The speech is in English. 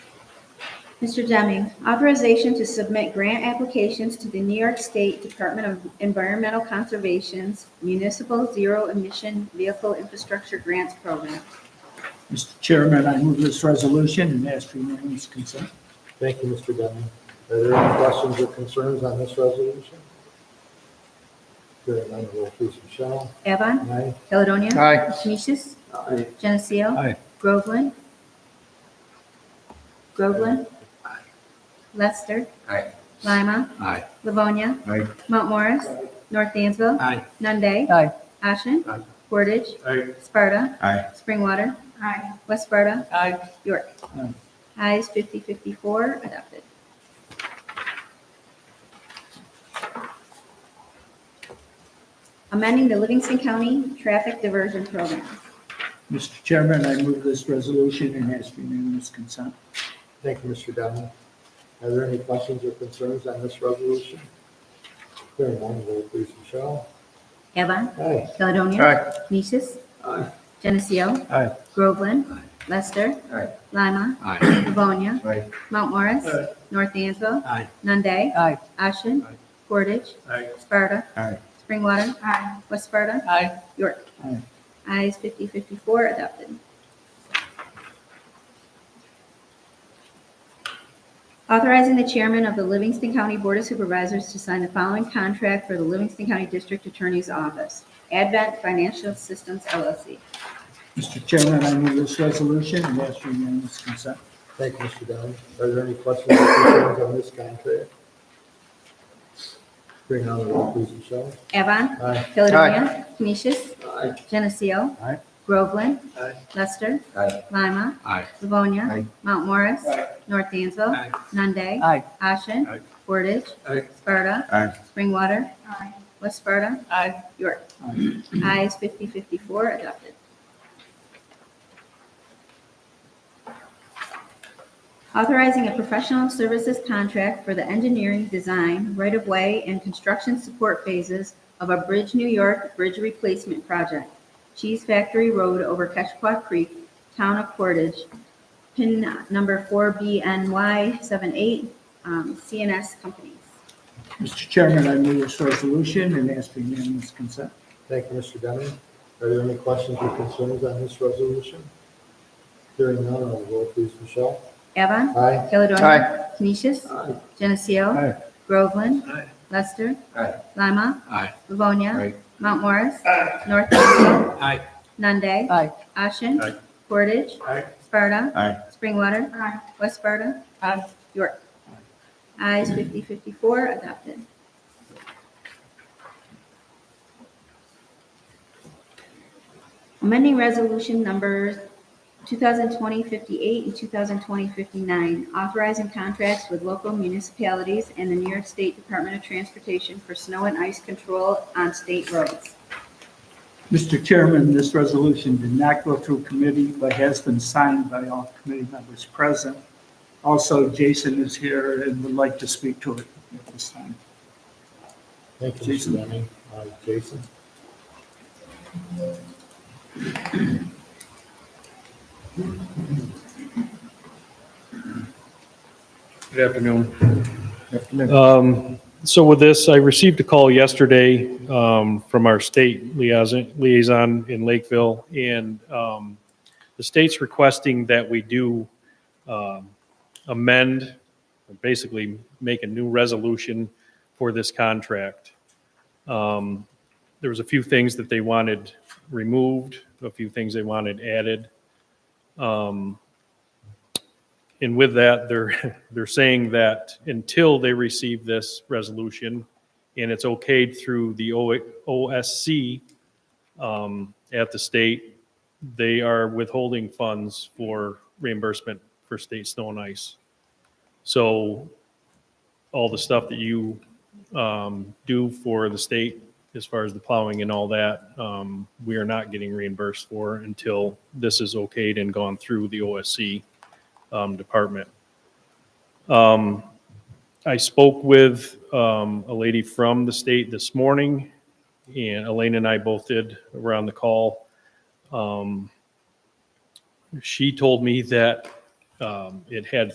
Mr. Deming, authorization to submit grant applications to the New York State Department of Environmental Conservation's Municipal Zero Emission Vehicle Infrastructure Grants Program. Mr. Chairman, I move this resolution and ask for unanimous consent. Thank you, Mr. Deming. Are there any questions or concerns on this resolution? Hearing none, roll please, Michelle. Avon, Aye. Caledonia. Aye. Canisius, Aye. Geneseo. Aye. Groveland. Groveland. Lester. Aye. Lima. Aye. Livonia. Aye. Mount Morris. North Dansville. Aye. Nunde. Aye. Ashen. Aye. Portage. Aye. Sparta. Aye. Springwater. Aye. West Sparta. Aye. York. Aye. Ayes 54 adopted. Amending the Livingston County Traffic Diversion Program. Mr. Chairman, I move this resolution and ask for unanimous consent. Thank you, Mr. Deming. Are there any questions or concerns on this resolution? Hearing none, roll please, Michelle. Avon. Aye. Caledonia. Aye. Canisius. Aye. Geneseo. Aye. Groveland. Aye. Lester. Aye. Lima. Aye. Livonia. Aye. Mount Morris. Aye. North Dansville. Aye. Nunde. Aye. Ashen. Aye. Portage. Aye. Sparta. Aye. Springwater. Aye. West Sparta. Aye. York. Aye. Ayes 54 adopted. Authorizing the chairman of the Livingston County Board of Supervisors to sign the following contract for the Livingston County District Attorney's Office. Advent Financial Systems LLC. Mr. Chairman, I move this resolution and ask for unanimous consent. Thank you, Mr. Deming. Are there any questions or concerns on this contract? Hearing none, roll please, Michelle. Avon. Aye. Caledonia. Canisius. Aye. Geneseo. Aye. Groveland. Aye. Lester. Aye. Lima. Aye. Livonia. Aye. Mount Morris. North Dansville. Aye. Nunde. Aye. Ashen. Aye. Portage. Aye. Sparta. Aye. Springwater. West Sparta. Aye. York. Aye. Ayes 54 adopted. Authorizing a professional services contract for the engineering, design, right-of-way, and construction support phases of a Bridge New York Bridge Replacement Project, Cheese Factory Road over Keshqua Creek, Town of Portage, PIN number 4BNY78, um, CNS Companies. Mr. Chairman, I move this resolution and ask for unanimous consent. Thank you, Mr. Deming. Are there any questions or concerns on this resolution? Hearing none, I'll roll please, Michelle. Evan. Aye. Caledonia. Canisius. Aye. Geneseo. Aye. Groveland. Aye. Lester. Aye. Lima. Aye. Livonia. Aye. Mount Morris. North Dansville. Aye. Nunde. Aye. Ashen. Aye. Portage. Aye. Sparta. Aye. Springwater. West Sparta. Aye. York. Ayes 54 adopted. Amending resolution numbers 2020-58 and 2020-59, authorizing contracts with local municipalities and the New York State Department of Transportation for snow and ice control on state roads. Mr. Chairman, this resolution did not go through committee, but has been signed by all committee members present. Also, Jason is here and would like to speak to it at this time. Thank you, Mr. Jason. Deming. Aye, Jason. Good afternoon. Um, So with this, I received a call yesterday um, from our state liaison liaison in Lakeville, and um, the state's requesting that we do um, amend, or basically make a new resolution for this contract. Um, There was a few things that they wanted removed, a few things they wanted added. Um, and with that, they're, they're saying that until they receive this resolution, and it's okayed through the O- OSC um, at the state, they are withholding funds for reimbursement for state snow and ice. So all the stuff that you um, do for the state, as far as the plowing and all that, um, we are not getting reimbursed for until this is okayed and gone through the OSC um, department. Um, I spoke with um, a lady from the state this morning, and Elaine and I both did around the call. Um, She told me that um, it had